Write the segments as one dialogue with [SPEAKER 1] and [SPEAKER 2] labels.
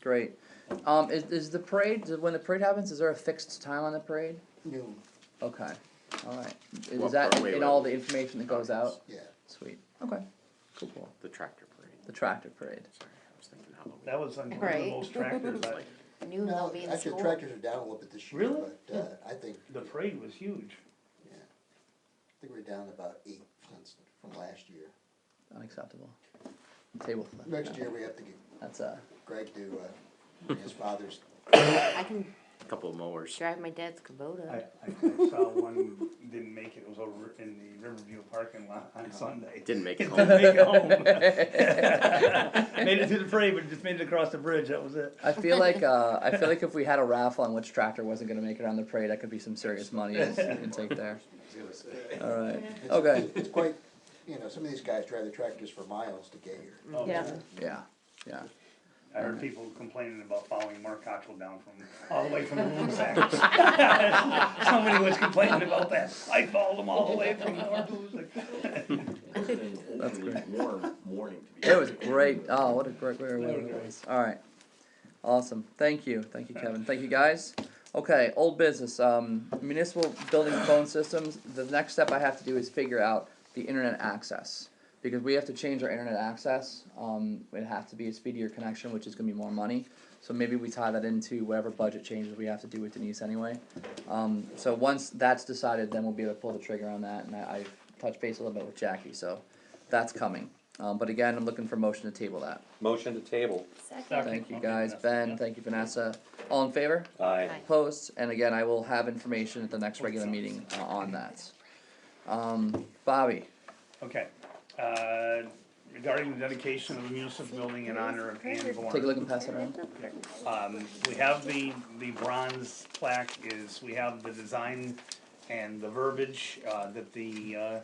[SPEAKER 1] Great. Um, is, is the parade, when the parade happens, is there a fixed time on the parade?
[SPEAKER 2] noon,
[SPEAKER 1] Okay, alright.
[SPEAKER 3] Well,
[SPEAKER 1] Is that
[SPEAKER 3] wait,
[SPEAKER 1] in
[SPEAKER 3] wait,
[SPEAKER 1] all the
[SPEAKER 3] wait.
[SPEAKER 1] information that goes out?
[SPEAKER 2] yeah.
[SPEAKER 1] Sweet, okay. Cool, cool.
[SPEAKER 3] The tractor parade.
[SPEAKER 1] The tractor parade.
[SPEAKER 3] Sorry, I was thinking Halloween.
[SPEAKER 4] That was on one of
[SPEAKER 5] Right.
[SPEAKER 4] the most tractors. I-
[SPEAKER 5] Noon
[SPEAKER 2] No,
[SPEAKER 5] they'll be in
[SPEAKER 2] Actually,
[SPEAKER 5] school.
[SPEAKER 2] tractors are down a little bit this year.
[SPEAKER 4] Really?
[SPEAKER 2] But, uh, I think,
[SPEAKER 4] The parade was huge.
[SPEAKER 2] yeah, I think we're down about eight since, from last year.
[SPEAKER 1] Unacceptable. Table flip.
[SPEAKER 2] Next year, we have to get
[SPEAKER 1] That's a,
[SPEAKER 2] Greg to, uh, his father's,
[SPEAKER 5] I can
[SPEAKER 3] Couple of mowers.
[SPEAKER 5] drive my dad's
[SPEAKER 4] I,
[SPEAKER 5] Kubota.
[SPEAKER 4] I I saw one didn't make it, it was over in the Riverview parking lot on Sunday.
[SPEAKER 3] Didn't make it
[SPEAKER 4] Didn't
[SPEAKER 3] home.
[SPEAKER 4] make it home. Made it to the parade, but just made it across the bridge, that was it.
[SPEAKER 1] I feel like, uh, I feel like if we had a raffle on which tractor wasn't gonna make it on the parade, that could be some serious money in in take there. Alright, okay,
[SPEAKER 2] it's quite, you know, some of these guys drive their tractors for miles to get here.
[SPEAKER 4] Oh,
[SPEAKER 5] Yeah.
[SPEAKER 1] yeah, yeah.
[SPEAKER 4] I heard people complaining about following Mark Cottrell down from, all the way from the Lusac. Somebody was complaining about that, I followed him all the way from North Lusac.
[SPEAKER 1] That's great.
[SPEAKER 6] Warm morning to be.
[SPEAKER 1] It was great. Oh, what a great, great, great, it was. All right. Awesome. Thank you. Thank you, Kevin. Thank you, guys. Okay, old business. Um, municipal building phone systems. The next step I have to do is figure out the internet access because we have to change our internet access. Um, it has to be a speedier connection, which is going to be more money. So maybe we tie that into whatever budget changes we have to do with Denise anyway. Um, so once that's decided, then we'll be able to pull the trigger on that. And I, I've touched base a little bit with Jackie, so that's coming. Um, but again, I'm looking for motion to table that.
[SPEAKER 7] Motion to table.
[SPEAKER 5] Second.
[SPEAKER 4] Sorry.
[SPEAKER 1] Thank you
[SPEAKER 4] Okay,
[SPEAKER 1] guys,
[SPEAKER 4] Vanessa,
[SPEAKER 1] Ben,
[SPEAKER 4] yeah.
[SPEAKER 1] thank you Vanessa, all in favor?
[SPEAKER 7] Aye.
[SPEAKER 5] Aye.
[SPEAKER 1] Opposed, and again, I will have information at the next regular meeting uh, on that. Um, Bobby,
[SPEAKER 4] Okay, uh, regarding the dedication of the municipal building in honor of Anne Bourne.
[SPEAKER 1] take a look and pass it around.
[SPEAKER 4] Um, we have the, the bronze plaque is, we have the design and the verbiage, uh, that the, uh,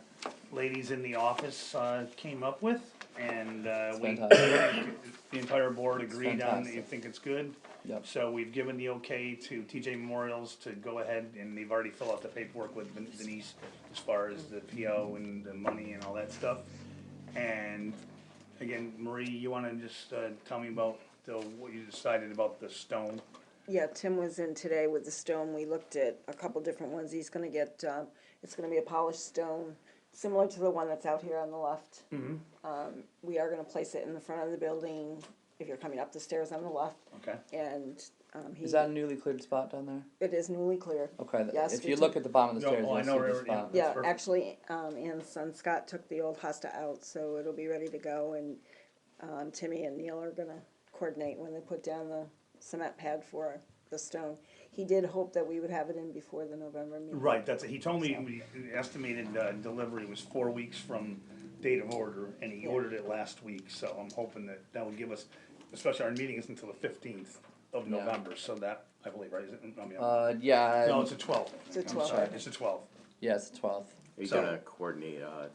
[SPEAKER 4] ladies in the office, uh, came up with. And, uh, we, the
[SPEAKER 1] fantastic.
[SPEAKER 4] entire board agreed on, they
[SPEAKER 1] fantastic.
[SPEAKER 4] think it's good.
[SPEAKER 1] Yep,
[SPEAKER 4] So we've given the okay to TJ Memorials to go ahead and they've already filled out the paperwork with Den- Denise as far as the PO and the money and all that stuff. And again, Marie, you wanna just, uh, tell me about the, what you decided about the stone?
[SPEAKER 8] Yeah, Tim was in today with the stone, we looked at a couple different ones, he's gonna get, um, it's gonna be a polished stone, similar to the one that's out here on the left.
[SPEAKER 1] Mm-hmm.
[SPEAKER 8] Um, we are gonna place it in the front of the building, if you're coming up the stairs on the left,
[SPEAKER 4] Okay,
[SPEAKER 8] and, um, he,
[SPEAKER 1] is that a newly cleared spot down there?
[SPEAKER 8] it is newly clear.
[SPEAKER 1] Okay, th-
[SPEAKER 8] Yes,
[SPEAKER 1] if
[SPEAKER 8] we
[SPEAKER 1] you
[SPEAKER 8] took-
[SPEAKER 1] look at the bottom of the
[SPEAKER 4] No,
[SPEAKER 1] stairs,
[SPEAKER 4] oh, I
[SPEAKER 1] you'll
[SPEAKER 4] know
[SPEAKER 1] see the
[SPEAKER 4] where it is.
[SPEAKER 1] spot.
[SPEAKER 8] Yeah,
[SPEAKER 4] perfect.
[SPEAKER 8] actually, um, Ann Son Scott took the old hosta out, so it'll be ready to go, and, um, Timmy and Neil are gonna coordinate when they put down the cement pad for the stone. He did hope that we would have it in before the November meeting.
[SPEAKER 4] right, that's, he told me we estimated, uh, delivery was four weeks from date of order and he ordered it last week, so I'm hoping that that would give us, especially our meeting is until the fifteenth of
[SPEAKER 1] Yeah.
[SPEAKER 4] November, so that, I believe, right, is it, I mean, I'm-
[SPEAKER 1] Uh, yeah,
[SPEAKER 4] No,
[SPEAKER 1] and-
[SPEAKER 4] it's a twelve.
[SPEAKER 8] It's a
[SPEAKER 4] I'm
[SPEAKER 8] 12.
[SPEAKER 4] sorry, It's a twelve.
[SPEAKER 1] yeah, it's the twelfth.
[SPEAKER 3] Are you
[SPEAKER 4] So-
[SPEAKER 3] gonna coordinate a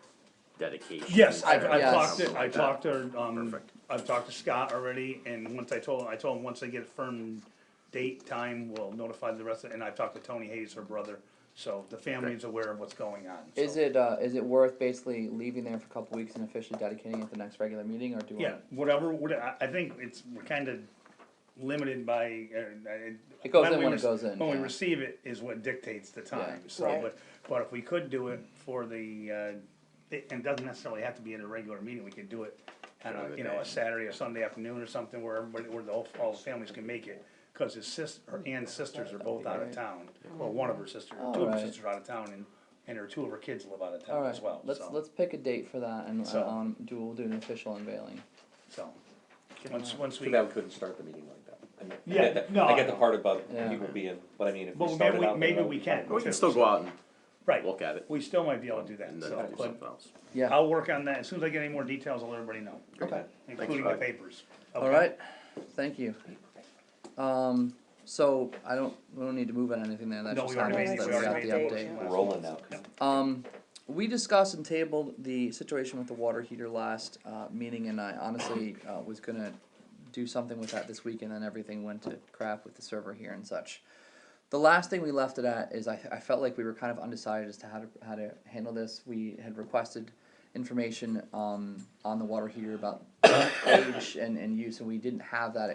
[SPEAKER 3] dedication?
[SPEAKER 4] Yes, I've, I've
[SPEAKER 1] Yes.
[SPEAKER 4] talked to, I talked to, um,
[SPEAKER 3] Perfect.
[SPEAKER 4] I've talked to Scott already, and once I told, I told him, once I get a firm date, time, we'll notify the rest of, and I've talked to Tony Hayes, her brother, so the family is aware of what's going on. so-
[SPEAKER 1] Is it, uh, is it worth basically leaving there for a couple weeks and officially dedicating it the next regular meeting, or do we?
[SPEAKER 4] Yeah, whatever, what, I, I think it's, we're kinda limited by, uh, I-
[SPEAKER 1] It goes
[SPEAKER 4] when
[SPEAKER 1] in
[SPEAKER 4] we
[SPEAKER 1] when it
[SPEAKER 4] rec-
[SPEAKER 1] goes in,
[SPEAKER 4] When we
[SPEAKER 1] yeah.
[SPEAKER 4] receive it is what dictates the time,
[SPEAKER 1] Yeah.
[SPEAKER 4] so,
[SPEAKER 8] Right.
[SPEAKER 4] but, but if we could do it for the, uh, it, and it doesn't necessarily have to be at a regular meeting, we could do it on a,
[SPEAKER 3] Another
[SPEAKER 4] you know,
[SPEAKER 3] day.
[SPEAKER 4] a Saturday or Sunday afternoon or something where everybody, where the whole, all the families can make it. Cause his sister, Ann's sisters are both out of
[SPEAKER 1] great.
[SPEAKER 4] town, well, one of her sisters,
[SPEAKER 1] Oh,
[SPEAKER 4] two of her
[SPEAKER 1] right.
[SPEAKER 4] sisters are out of town, and, and her, two of her kids live out of
[SPEAKER 1] All
[SPEAKER 4] town
[SPEAKER 1] right.
[SPEAKER 4] as well,
[SPEAKER 1] let's
[SPEAKER 4] so,
[SPEAKER 1] let's pick a date for that, and
[SPEAKER 4] So-
[SPEAKER 1] uh, um, do we'll do an official unveiling.
[SPEAKER 4] so. Once, once
[SPEAKER 7] So
[SPEAKER 4] we.
[SPEAKER 7] that we couldn't start the meeting like that. I mean, I
[SPEAKER 4] Yeah,
[SPEAKER 7] get that-
[SPEAKER 4] no,
[SPEAKER 7] I get
[SPEAKER 4] I-
[SPEAKER 7] the part about
[SPEAKER 1] Yeah.
[SPEAKER 7] people being, but I mean, if we
[SPEAKER 4] Well, maybe
[SPEAKER 7] started
[SPEAKER 4] we,
[SPEAKER 7] out.
[SPEAKER 4] maybe we can.
[SPEAKER 3] We
[SPEAKER 4] too,
[SPEAKER 3] can still
[SPEAKER 4] so-
[SPEAKER 3] go out
[SPEAKER 4] Right.
[SPEAKER 3] and look at it
[SPEAKER 4] We still might be able to do that,
[SPEAKER 3] and then
[SPEAKER 4] so,
[SPEAKER 3] do
[SPEAKER 4] but
[SPEAKER 3] something else.
[SPEAKER 1] Yeah.
[SPEAKER 4] I'll work on that, as soon as I get any more details, I'll let everybody know,
[SPEAKER 1] okay.
[SPEAKER 4] including the
[SPEAKER 3] Rob.
[SPEAKER 4] papers.
[SPEAKER 1] All right. Thank you. Um. So I don't we don't need to move on anything there. That
[SPEAKER 4] No,
[SPEAKER 1] just
[SPEAKER 4] we already
[SPEAKER 1] happens
[SPEAKER 8] made it.
[SPEAKER 1] that
[SPEAKER 8] We
[SPEAKER 1] we
[SPEAKER 8] already
[SPEAKER 1] got
[SPEAKER 8] made
[SPEAKER 1] the
[SPEAKER 8] it.
[SPEAKER 1] update.
[SPEAKER 7] We're Rolling now.
[SPEAKER 1] Um, we discussed and tabled the situation with the water heater last uh, meeting, and I honestly uh, was gonna do something with that this week, and then everything went to crap with the server here and such. The last thing we left it at is I, I felt like we were kind of undecided as to how to how to handle this. We had requested information um, on the water heater about age and, and use, and we didn't have that